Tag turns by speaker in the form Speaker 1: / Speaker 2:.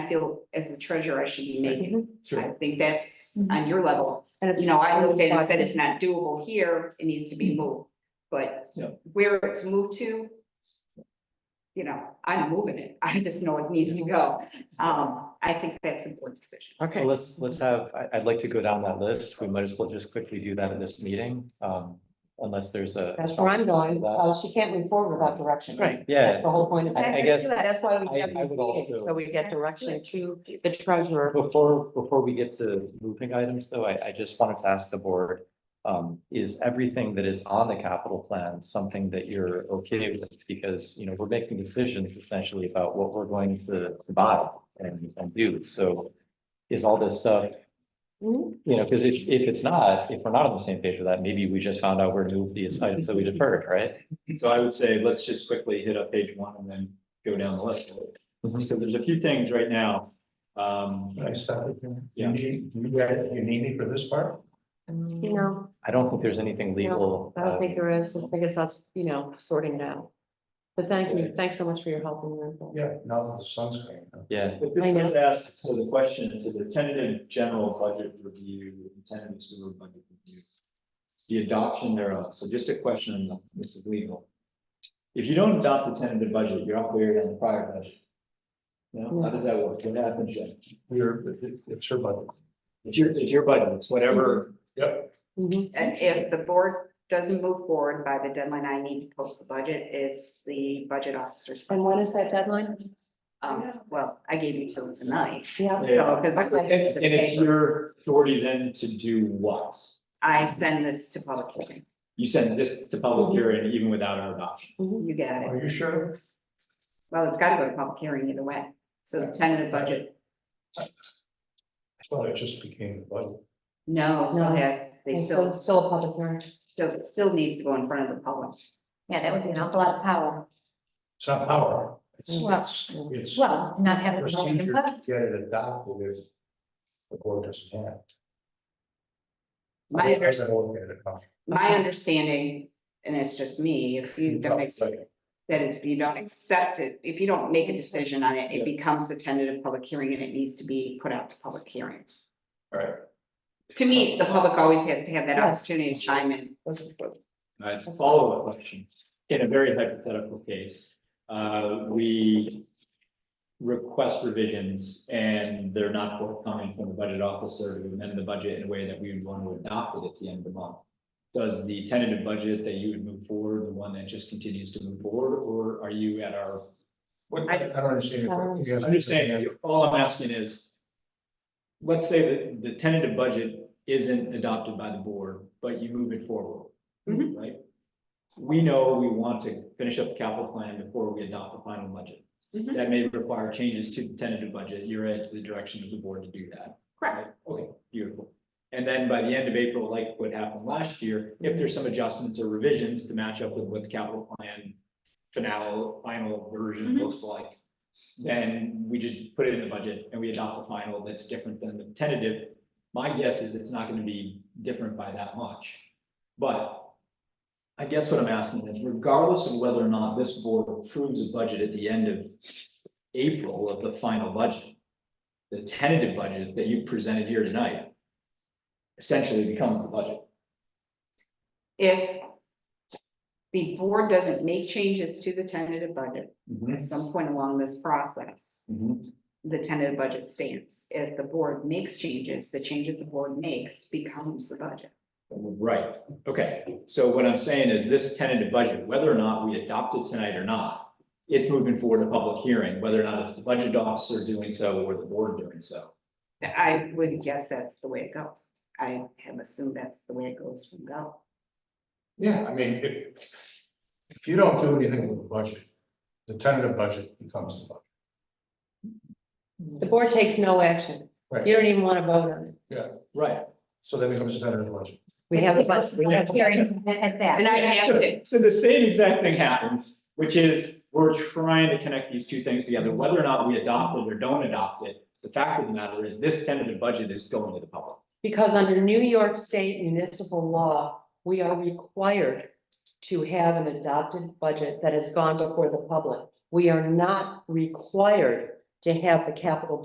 Speaker 1: feel as the treasurer, I should be making. I
Speaker 2: Sure.
Speaker 1: think that's
Speaker 3: Mhm.
Speaker 1: on your level. You know, I looked at it and said it's not doable here, it needs to be
Speaker 3: Mm-hmm.
Speaker 1: moved, but
Speaker 2: Yeah.
Speaker 1: where it's moved to. You know, I'm moving it, I just know it needs to go, um, I think that's an important decision.
Speaker 2: Well, let's, let's have, I, I'd like to go down that list. We might as well just quickly do that in this meeting, um, unless there's a.
Speaker 3: That's where I'm going. Uh, she can't move forward without direction.
Speaker 4: Right.
Speaker 3: That's
Speaker 2: Yeah,
Speaker 3: the whole point of.
Speaker 2: I- I
Speaker 3: it.
Speaker 2: guess
Speaker 3: That's why we
Speaker 2: I-
Speaker 3: have
Speaker 2: I
Speaker 3: these
Speaker 2: would also-
Speaker 3: meetings. So we get direction to the treasurer.
Speaker 2: before, before we get to moving items though, I, I just wanted to ask the board. Um, is everything that is on the capital plan something that you're okay with? Because, you know, we're making decisions essentially about what we're going to buy and, and do. So is all this stuff
Speaker 3: Mhm.
Speaker 2: You know, because if, if it's not, if we're not on the same page with that, maybe we just found out where to move these items that we deferred, right?
Speaker 4: So I would say, let's just quickly hit up page one and then go down the list.
Speaker 2: Mhm.
Speaker 4: So there's a few things right now. Um,
Speaker 5: Can I stop it? there?
Speaker 4: Yeah.
Speaker 5: You need, you guys- you need me for this part?
Speaker 3: You know,
Speaker 2: I don't think there's anything legal.
Speaker 3: I don't think
Speaker 2: uh,
Speaker 3: there is. I think it's us, you know, sorting it out. But thank you. Thanks so much for your help and your input.
Speaker 5: Yeah, now that the sun's coming up.
Speaker 2: Yeah,
Speaker 4: but this was asked, so the question is, the tentative general budget review, the tentative sewer budget review. The adoption thereof, so just a question, this is legal. If you don't adopt the tentative budget, you're up there on the prior budget. You know, how does that work? What happens then?
Speaker 5: You're, it- it's her budget.
Speaker 4: It's your, it's your budget, it's whatever,
Speaker 5: Yep,
Speaker 3: Mhm.
Speaker 1: And if the board doesn't move forward by the deadline, I need to post the budget, it's the budget officer's.
Speaker 3: And when is that deadline?
Speaker 1: Um, well, I gave you till tonight,
Speaker 3: Yeah.
Speaker 1: so, because
Speaker 4: and and it's
Speaker 1: I,
Speaker 4: your authority then to do what?
Speaker 1: I send this to public hearing,
Speaker 4: You send this to public
Speaker 3: Mhm.
Speaker 4: hearing even without an adoption.
Speaker 3: Mhm.
Speaker 1: you get it.
Speaker 5: are you sure?
Speaker 1: Well, it's gotta go to public hearing either way, so the tentative budget,
Speaker 5: I thought it just became the budget.
Speaker 1: no, it still
Speaker 3: No.
Speaker 1: has, they
Speaker 3: And so
Speaker 1: still,
Speaker 3: it's still a public hearing.
Speaker 1: still, it still needs to go in front of the public.
Speaker 6: Yeah, that would be an awful lot of power.
Speaker 5: It's not power.
Speaker 6: Well-
Speaker 5: It's, it's it's
Speaker 6: Well, not having. the right
Speaker 5: procedure
Speaker 6: input.
Speaker 5: to get it adopted if the board doesn't have. it.
Speaker 1: My,
Speaker 5: I've been
Speaker 1: under-
Speaker 5: looking at it now.
Speaker 1: my understanding, and it's just me, if you
Speaker 5: Mm,
Speaker 1: don't accept, that is, if you don't accept it, if you don't make a decision on it, it becomes a tentative public hearing and it needs to be put out to public hearing.
Speaker 5: All right.
Speaker 1: To me, the public always has to have that
Speaker 3: Yes.
Speaker 1: opportunity to chime in.
Speaker 4: Alright, follow up question. In a very hypothetical case, uh, we request revisions and they're not forthcoming from the budget officer to amend the budget in a way that we would want to adopt it at the end of the month. Does the tentative budget that you would move forward, the one that just continues to move forward, or are you at our?
Speaker 5: What, I don't understand. your question. You
Speaker 3: I
Speaker 5: have-
Speaker 4: I'm just saying, all I'm asking is, let's say that the tentative budget isn't adopted by the board, but you move it forward.
Speaker 1: Mhm.
Speaker 4: Right? We know we want to finish up the capital plan before we adopt the final budget.
Speaker 1: Mhm.
Speaker 4: That may require changes to the tentative budget. You're at the direction of the board to do that.
Speaker 1: Correct.
Speaker 4: right? Okay, beautiful. And then by the end of April, like what happened last year, if there's some adjustments or revisions to match up with what the capital plan finale, final version
Speaker 1: Mhm.
Speaker 4: looks like, then we just put it in the budget and we adopt the final that's different than the tentative. My guess is it's not gonna be different by that much, but I guess what I'm asking is regardless of whether or not this board approves a budget at the end of April of the final budget, the tentative budget that you presented here tonight essentially becomes the budget.
Speaker 1: If the board doesn't make changes to the tentative budget
Speaker 4: Mm.
Speaker 1: at some point along this process,
Speaker 4: Mhm.
Speaker 1: the tentative budget stands. If the board makes changes, the changes the board makes becomes the budget.
Speaker 4: Right, okay. So what I'm saying is this tentative budget, whether or not we adopt it tonight or not, it's moving forward to public hearing, whether or not it's the budget officer doing so or the board doing so.
Speaker 1: I would guess that's the way it goes. I have assumed that's the way it goes from go.
Speaker 5: Yeah, I mean, if, if you don't do anything with the budget, the tentative budget becomes the budget.
Speaker 3: The board takes no action.
Speaker 5: Right.
Speaker 3: You don't even want to vote on it.
Speaker 4: Right.
Speaker 5: So that becomes the tentative budget.
Speaker 3: We have a bunch.
Speaker 6: Because we're not hearing At at that.
Speaker 1: And I asked
Speaker 4: So,
Speaker 1: it,
Speaker 4: so the same exact thing happens, which is we're trying to connect these two things together, whether or not we adopt it or don't adopt it. The fact of the matter is this tentative budget is going to the public.
Speaker 3: Because under New York State municipal law, we are required to have an adopted budget that has gone before the public. We are not required to have the capital